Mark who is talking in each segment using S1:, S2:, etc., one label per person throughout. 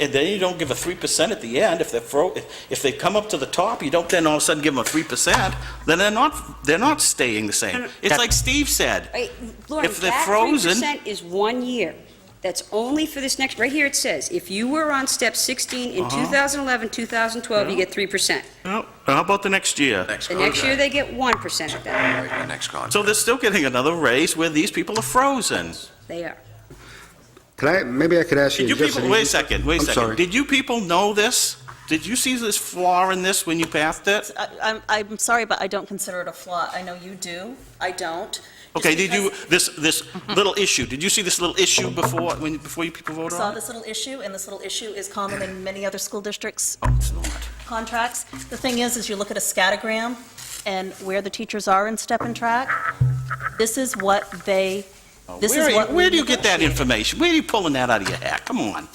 S1: and then you don't give a 3% at the end, if they're, fro- if- if they come up to the top, you don't then all of a sudden give them a 3%, then they're not, they're not staying the same. It's like Steve said,
S2: Hey, Lauren,
S1: If they're
S2: that
S1: frozen-
S2: 3% is one year. That's only for this next, right here it says, if you were on step 16 in
S1: Uh-huh.
S2: 2011, 2012, you get 3%.
S1: "No, how about the next year?
S3: Next
S2: The next year,
S3: contract.
S2: they get 1% of that.
S3: Right, the next contract.
S1: So they're still getting another raise where these people are frozen.
S2: They are.
S4: Can I, maybe I could ask you
S1: Did you
S4: just an
S1: people, wait a
S4: easy-
S1: second, wait a
S4: I'm
S1: second.
S4: sorry.
S1: Did you people know this? Did you see this flaw in this when you passed it?
S5: I- I'm, I'm sorry, but I don't consider it a flaw. I know you do, I don't. Just
S1: Okay, did you,
S5: because
S1: this, this little issue, did you see this little issue before, when, before you people
S5: I
S1: voted
S5: saw
S1: on it?
S5: this little issue, and this little issue is common in many other school districts'
S1: Oh, it's not.
S5: contracts. The thing is, is you look at a scattergram and where the teachers are in step and track, this is what they, this
S1: Where
S5: is
S1: are you-
S5: what. we
S1: Where do you get that
S5: negotiate.
S1: information? Where are you pulling that out of your hat? Come on.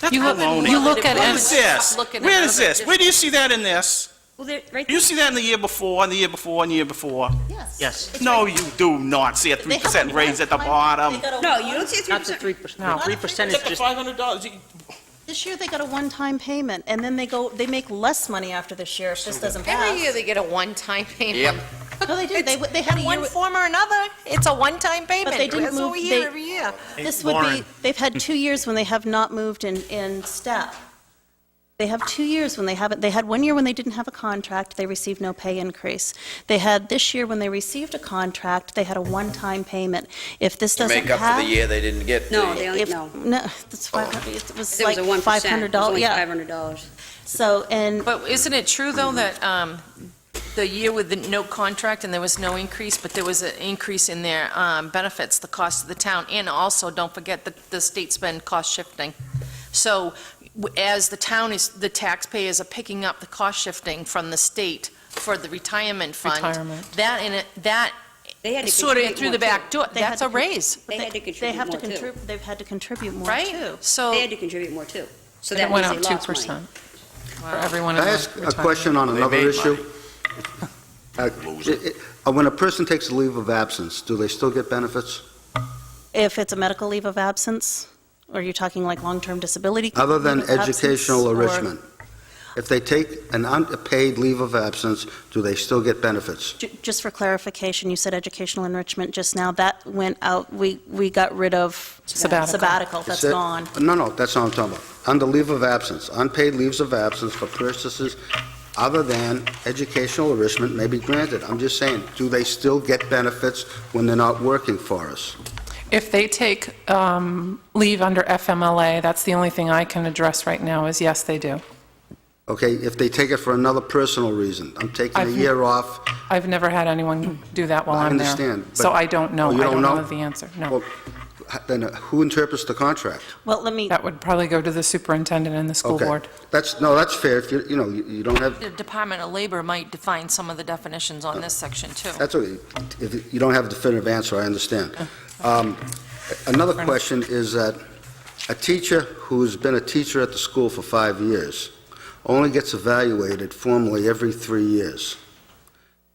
S1: That's
S6: You have-
S1: baloney.
S6: you look at
S1: Where
S6: it-
S1: is this?
S6: Look at
S1: Where is
S6: another
S1: this? Where do you see that in this?
S2: Well, they're, right,
S1: You see that in the year before, and the year before, and the year before?
S5: Yes.
S6: Yes.
S5: It's
S1: No,
S5: right-
S1: you do not see a
S5: they
S1: three
S5: have
S1: percent
S5: a
S1: raise at the
S5: one- they
S1: bottom.
S5: got a
S2: no,
S5: one-
S2: you don't see a 3%.
S6: Not the 3%. No, 3% is
S1: Except the
S6: just,
S1: five hundred dollars.
S5: This year, they got a one-time payment, and then they go, they make less money after this year if this doesn't pass.
S6: every year they get a one-time
S3: Yep.
S6: payment.
S5: No, they do. They, they had a year.
S7: one
S5: with-
S7: form or another. It's a one-time payment.
S5: But they didn't
S7: That's what
S5: move-
S7: we hear
S5: they-
S7: every year.
S5: This would be, they've had two years when they have not moved in, in step. They have two years when they haven't, they had one year when they didn't have a contract, they received no pay increase. They had this year when they received a contract, they had a one-time payment. If this
S3: To
S5: doesn't
S3: make up for the
S5: pass.
S3: year they didn't get.
S2: No,
S3: the-
S2: they
S5: If,
S2: don't, no.
S5: no, that's five hundred, it was
S2: There
S5: like
S2: was a 1%.
S5: five hundred dollars,
S2: It
S5: yeah.
S2: was only $500.
S5: So, and
S6: But isn't it true, though, that um, the year with the no contract and there was no increase, but there was an increase in their um, benefits, the cost of the town, and also, don't forget, the, the state's been cost shifting. So w- as the town is, the taxpayers are picking up the cost shifting from the state for the retirement fund.
S8: Retirement.
S6: That, in it, that
S2: They had to
S6: sort of
S2: contribute
S6: through
S2: more,
S6: the back
S2: too.
S6: door,
S5: They had
S6: that's
S5: to
S6: a
S5: con-
S6: raise,
S2: They had to
S5: they
S2: contribute
S5: have to
S2: more, too.
S5: contribute, they've had to contribute more, too.
S6: right? So.
S2: They had to contribute more, too. So
S8: It
S2: that
S8: went
S2: means
S8: up
S2: they lost money.
S8: 2% for everyone.
S4: Can
S8: in
S4: I
S8: the
S4: ask a
S8: retirement.
S4: question on
S3: They
S4: another
S3: made
S4: issue?
S3: money.
S4: Uh, it- it- When a person takes a leave of absence, do they still get benefits?
S5: If it's a medical leave of absence, or you're talking like long-term disability.
S4: Other
S5: leave
S4: than
S5: of absence,
S4: educational
S5: or-
S4: enrichment? If they take an unpaid leave of absence, do they still get benefits?
S5: Ju- Just for clarification, you said educational enrichment just now, that went out, we, we got rid of
S8: Sabbatical.
S5: sabbatical, that's
S4: Is it-
S5: gone.
S4: No, no, that's not what I'm talking about. Under leave of absence, unpaid leaves of absence for purposes other than educational enrichment may be granted. I'm just saying, do they still get benefits when they're not working for us?
S8: If they take um, leave under FMLA, that's the only thing I can address right now, is yes, they do.
S4: Okay, if they take it for another personal reason, I'm taking a
S8: I've-
S4: year off.
S8: I've never had anyone do that while
S4: I
S8: I'm there.
S4: understand,
S8: So
S4: but-
S8: I don't know.
S4: Oh, you
S8: I
S4: don't
S8: don't
S4: know?
S8: know the answer, no.
S4: Well, Then uh, who interprets the contract?
S5: Well, let me,
S8: That would probably go to the superintendent and the school
S4: Okay,
S8: board.
S4: That's, no, that's fair, if you, you know, you you don't have,
S6: The Department of Labor might define some of the definitions on this section, too.
S4: that's, okay. if you don't have a definitive answer, I understand. Um, Another question is that a teacher who's been a teacher at the school for five years only gets evaluated formally every three years.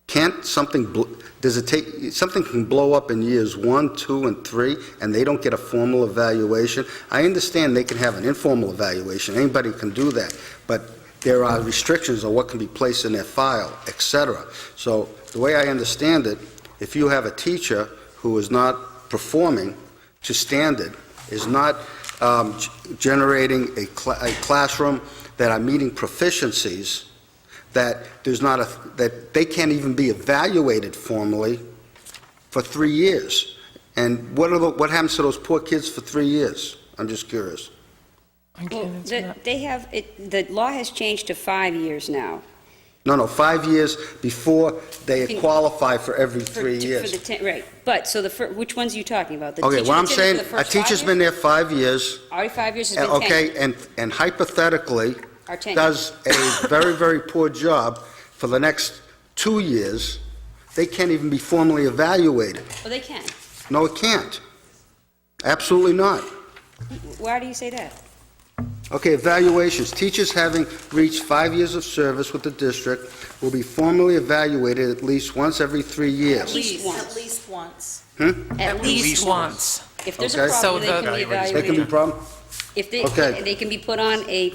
S4: Can't something, bl- does it take, something can blow up in years one, two, and three, and they don't get a formal evaluation? I understand they can have an informal evaluation, anybody can do that, but there are restrictions on what can be placed in their file, et cetera. So the way I understand it, if you have a teacher who is not performing to standard, is not um, g- generating a cla- a classroom that are meeting proficiencies, that there's not a, that they can't even be evaluated formally for three years. And what are the, what happens to those poor kids for three years? I'm just curious.
S8: I can't
S2: Well,
S8: answer
S2: the-
S8: that.
S2: they have, it- the law has changed to five years now.
S4: No, no, five years before they qualify for every
S2: For-
S4: three
S2: to- For
S4: years.
S2: the, ten- right, but, so the, fir- which ones are you talking about? The
S4: Okay,
S2: teacher
S4: what I'm
S2: that's in it for
S4: saying,
S2: the
S4: a
S2: first five
S4: teacher's
S2: years?
S4: been there five years,
S2: Already five years has
S4: and-
S2: been 10.
S4: okay, and and hypothetically,
S2: Our tenure.
S4: does a very, very poor job for the next two years, they can't even be formally evaluated.
S2: Well, they can.
S4: No, it can't. Absolutely not.
S2: Why do you say that?
S4: Okay, evaluations. Teachers having reached five years of service with the district will be formally evaluated at least once every three
S2: At
S4: years.
S2: least
S5: at
S2: once.
S5: least once.
S4: Hmm?
S2: At least once. If there's a
S4: Okay.
S2: problem,
S4: So
S2: they
S8: the-
S2: can be
S4: They can be
S2: evaluated.
S4: problem?
S2: If they,
S4: Okay.
S2: they can be put on a